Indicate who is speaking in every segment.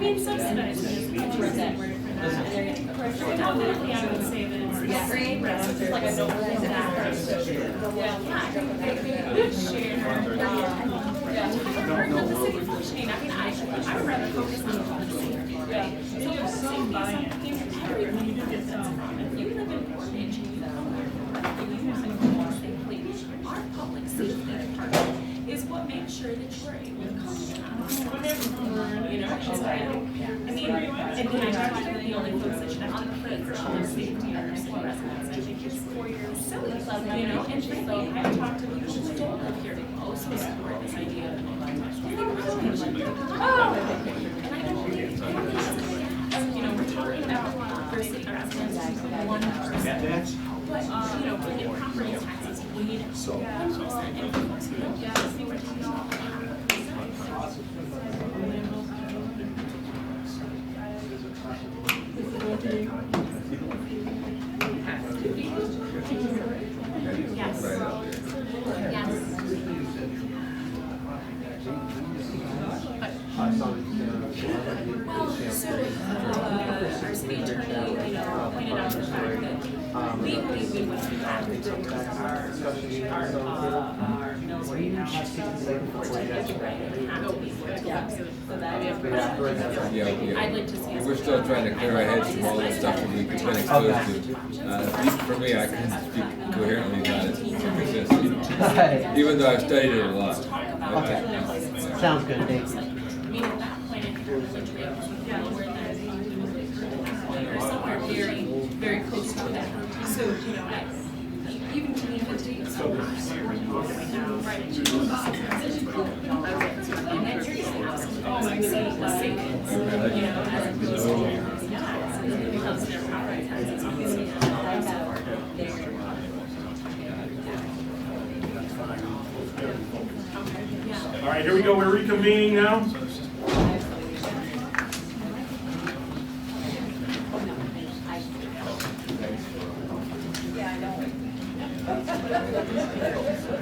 Speaker 1: they've subsidized it. I'll use that word for that. Definitely, I would say that it's free rest, it's like a no hold back. Yeah, I think they do a good share. Um, yeah. Or not the city functioning, I mean, I, I would rather focus on the policy. right? So if some, some, everyone, you do get some, if you live in Portage, you live in Portage, please, our public safety department is what makes sure that you're able to come down. You know, it's like, I mean, and then I talked to the only folks that should have to put their own safety on their city residents, I think it's four years silly, you know, and frankly, I've talked to people who don't live here, who also support this idea of. Oh, and I don't think, I don't think it's like, that. you know, we're talking about for city residents, one person. But, uh, you know, when your property taxes paid, one percent, and folks who don't get it, they were talking about that. Yes. Yes. Well, so, uh, our city attorney, you know, pointed out the fact that legally we would have to go to our, our, uh, our mills right now.
Speaker 2: Yeah,
Speaker 1: I'd like to see. us-
Speaker 2: yeah. We're still trying to clear our heads from all the stuff that we've been exposed to. Uh, at least for me, I couldn't speak coherently about it to resist, you know.
Speaker 3: Right.
Speaker 2: Even though I've studied it a lot. uh,
Speaker 3: Sounds good, thanks.
Speaker 1: I mean, at that point, I think we're really trying to figure out where that is. Or somewhere very, very close to that. So, you know, I, even to me, the dates are right now, right? And then you're just asking, oh, I see, the savings, you know, as opposed to, yeah, so it becomes their property taxes. because they have that or they're-
Speaker 4: All right, here we go, we're reconvening now.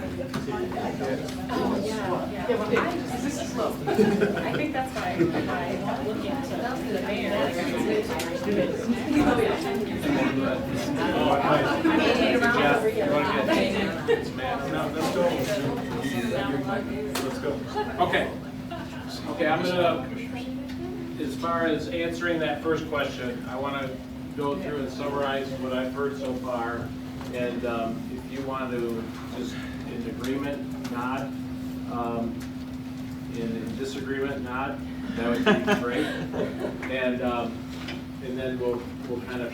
Speaker 1: Yeah, well, I, this is slow. I think that's why I, I look into the mayor. like, I'm gonna do it. Oh, yeah.
Speaker 4: Now, Let's go. Let's go.
Speaker 5: Okay. Okay, I'm gonna, as far as answering that first question, I wanna go through and summarize what I've heard so far. And um, if you want to, just in agreement, nod. Um, In in disagreement, nod. That would be great. And, um, and then we'll, we'll kind of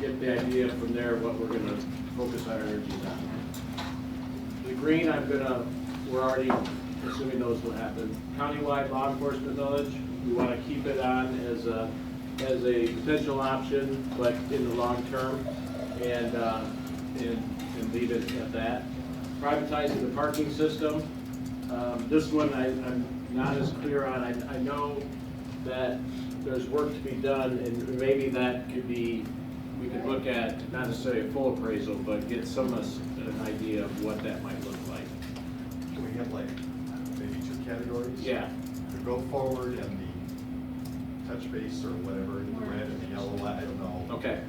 Speaker 5: get the idea from there what we're gonna focus our energies on. The green, I'm gonna, we're already assuming those will happen. Countywide law enforcement knowledge, we wanna keep it on as a, as a potential option, but in the long term, and, uh, and, and leave it at that. Privatizing the parking system, um, this one I, I'm not as clear on, I, I know that there's work to be done, and maybe that could be we could look at, not necessarily a full appraisal, but get some, us- an idea of what that might look like.
Speaker 6: Can we have like, maybe two categories?
Speaker 5: Yeah,
Speaker 6: The go forward and the touch base or whatever, the red and the yellow, I don't know.
Speaker 5: okay.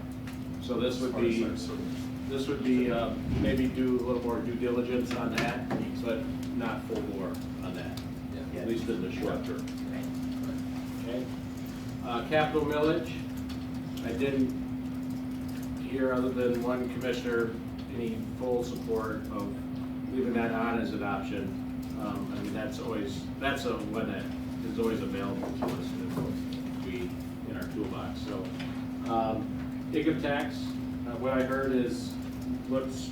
Speaker 5: So this
Speaker 6: As
Speaker 5: would
Speaker 6: far as
Speaker 5: be,
Speaker 6: our sort of-
Speaker 5: this would be, um, maybe do a little more due diligence on that, but not full bore on that, at least in the short term. Okay? Uh, Capital millage, I didn't hear, other than one commissioner, any full support of leaving that on as an option. Um, I mean, that's always, that's a, one that is always available to us to be in our toolbox, so. um, Income tax, uh, what I heard is, let's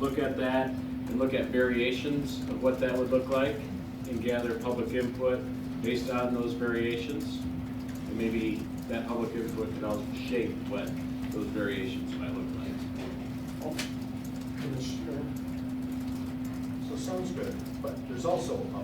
Speaker 5: look at that and look at variations of what that would look like and gather public input based on those variations. And maybe that public input could also shape what those variations might look like.
Speaker 6: So sounds good, but there's also a